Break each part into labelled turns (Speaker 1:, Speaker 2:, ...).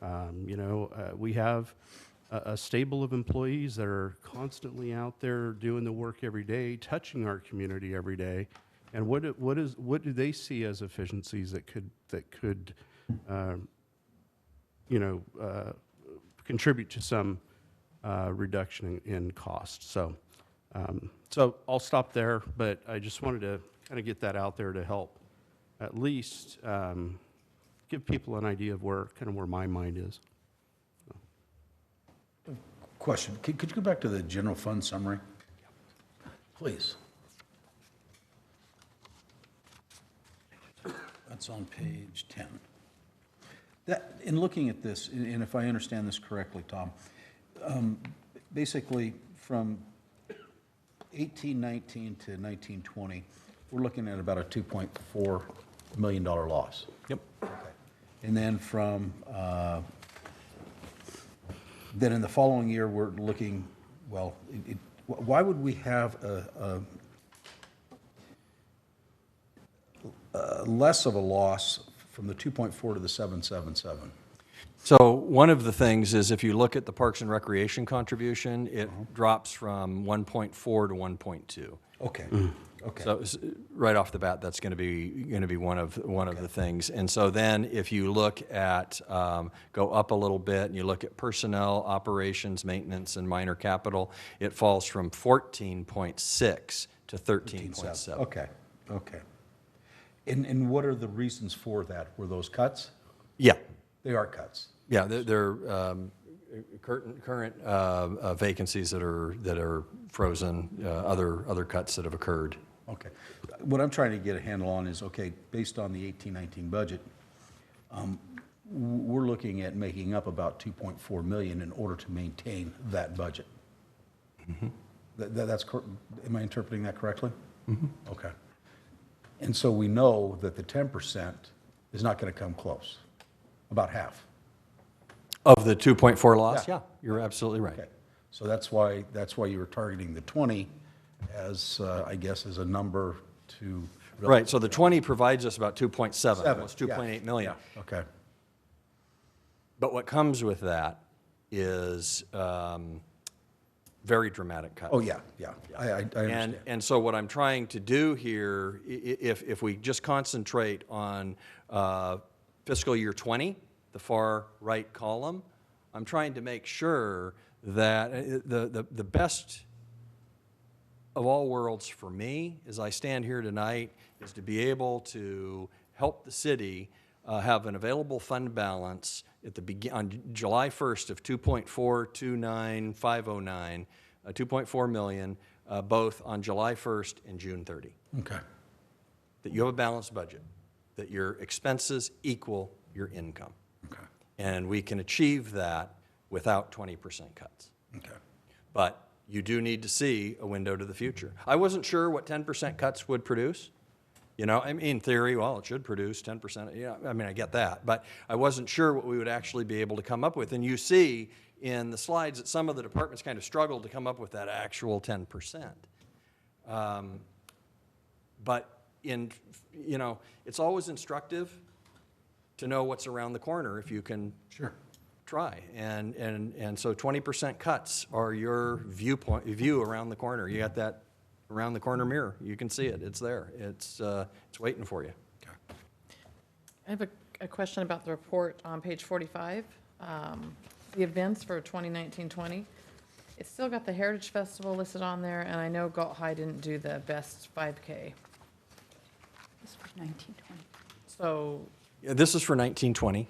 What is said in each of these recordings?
Speaker 1: Um, You know, uh, we have a a stable of employees that are constantly out there doing the work every day, touching our community every day. And what, do- what is, what do they see as efficiencies that could, that could, um, you know, uh, contribute to some uh, reduction in in cost? So, um, so I'll stop there, but I just wanted to kind of get that out there to help at least um, give people an idea of where, kind of where my mind is.
Speaker 2: Question, could, could you go back to the general fund summary? Please. That's on page 10. That, in looking at this, and and if I understand this correctly, Tom, um, basically, from 1819 to 1920, we're looking at about a $2.4 million loss.
Speaker 3: Yep.
Speaker 2: And then from, uh, then in the following year, we're looking, well, it- it- wh- why would we have a, a- a less of a loss from the 2.4 to the 777?
Speaker 3: So one of the things is if you look at the Parks and Recreation contribution, it drops from 1.4 to 1.2.
Speaker 2: Okay, okay.
Speaker 3: So s- right off the bat, that's going to be, going to be one of, one of the things. And so then if you look at, um, go up a little bit and you look at personnel, operations, maintenance, and minor capital, it falls from 14.6 to 13.7.
Speaker 2: Okay, okay. And, and what are the reasons for that? Were those cuts?
Speaker 3: Yeah,
Speaker 2: They are cuts.
Speaker 3: yeah, they're- they're um, current, current uh, uh, vacancies that are, that are frozen, uh, other, other cuts that have occurred.
Speaker 2: Okay. What I'm trying to get a handle on is, okay, based on the eighteen nineteen budget, um, w- we're looking at making up about two point four million in order to maintain that budget. That, that- that's, cor- am I interpreting that correctly? Okay. And so we know that the ten percent is not gonna come close, about half.
Speaker 3: Of the 2.4 loss?
Speaker 2: Yeah.
Speaker 3: Yeah, you're absolutely right.
Speaker 2: Okay. So that's why, that's why you were targeting the twenty as, uh, I guess, as a number to.
Speaker 3: Right, so the 20 provides us about 2.7,
Speaker 2: Seven,
Speaker 3: almost
Speaker 2: yeah,
Speaker 3: 2.8 million.
Speaker 2: yeah, Okay.
Speaker 3: But what comes with that is um, very dramatic cuts.
Speaker 2: Oh, yeah, yeah. I, I I understand.
Speaker 3: And, and so what I'm trying to do here, i- i- if, if we just concentrate on uh, fiscal year 20, the far right column, I'm trying to make sure that uh, the, the, the best of all worlds for me, as I stand here tonight, is to be able to help the city uh, have an available fund balance at the begin, on July 1st of 2.429509, uh, 2.4 million, uh, both on July 1st and June 30.
Speaker 2: Okay,
Speaker 3: That you have a balanced budget, that your expenses equal your income.
Speaker 2: okay,
Speaker 3: And we can achieve that without 20% cuts.
Speaker 2: okay.
Speaker 3: But you do need to see a window to the future. I wasn't sure what 10% cuts would produce. You know, I mean, in theory, well, it should produce 10%. Yeah, I mean, I get that. But I wasn't sure what we would actually be able to come up with. And you see in the slides that some of the departments kind of struggled to come up with that actual 10%. Um, But in, you know, it's always instructive to know what's around the corner if you can
Speaker 2: Sure.
Speaker 3: try. And, and, and so 20% cuts are your viewpoint, view around the corner. You got that around the corner mirror. You can see it. It's there. It's, uh, it's waiting for you.
Speaker 4: I have a, a question about the report on page 45, um, the events for 2019-20. It's still got the Heritage Festival listed on there, and I know Galt High didn't do the best 5K.
Speaker 5: This was 1920.
Speaker 4: So,
Speaker 3: Yeah, This is for 1920.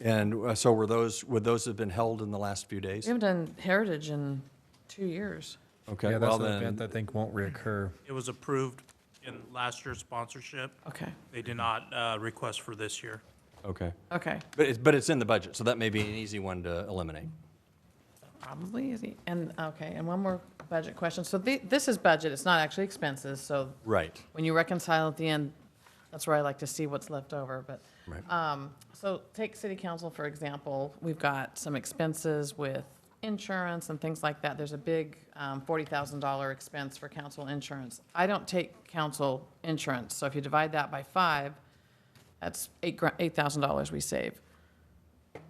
Speaker 3: And uh, so were those, would those have been held in the last few
Speaker 4: we
Speaker 3: days?
Speaker 4: haven't done Heritage in two years.
Speaker 3: Okay,
Speaker 6: yeah, that's
Speaker 3: well
Speaker 6: an event
Speaker 3: then,
Speaker 6: I think won't reoccur.
Speaker 7: It was approved in last year's sponsorship.
Speaker 4: Okay,
Speaker 7: They did not uh, request for this year.
Speaker 3: okay.
Speaker 4: okay,
Speaker 3: But it's, but it's in the budget, so that may be an easy one to eliminate.
Speaker 4: probably, is he- and, okay, and one more budget question. So thi- this is budget, it's not actually expenses, so
Speaker 3: Right.
Speaker 4: when you reconcile at the end, that's where I like to see what's left over, but.
Speaker 3: Right.
Speaker 4: Um, so take city council, for example, we've got some expenses with insurance and things like that. There's a big, um, forty thousand dollar expense for council insurance. I don't take council insurance, so if you divide that by five, that's eight, eight thousand dollars we save.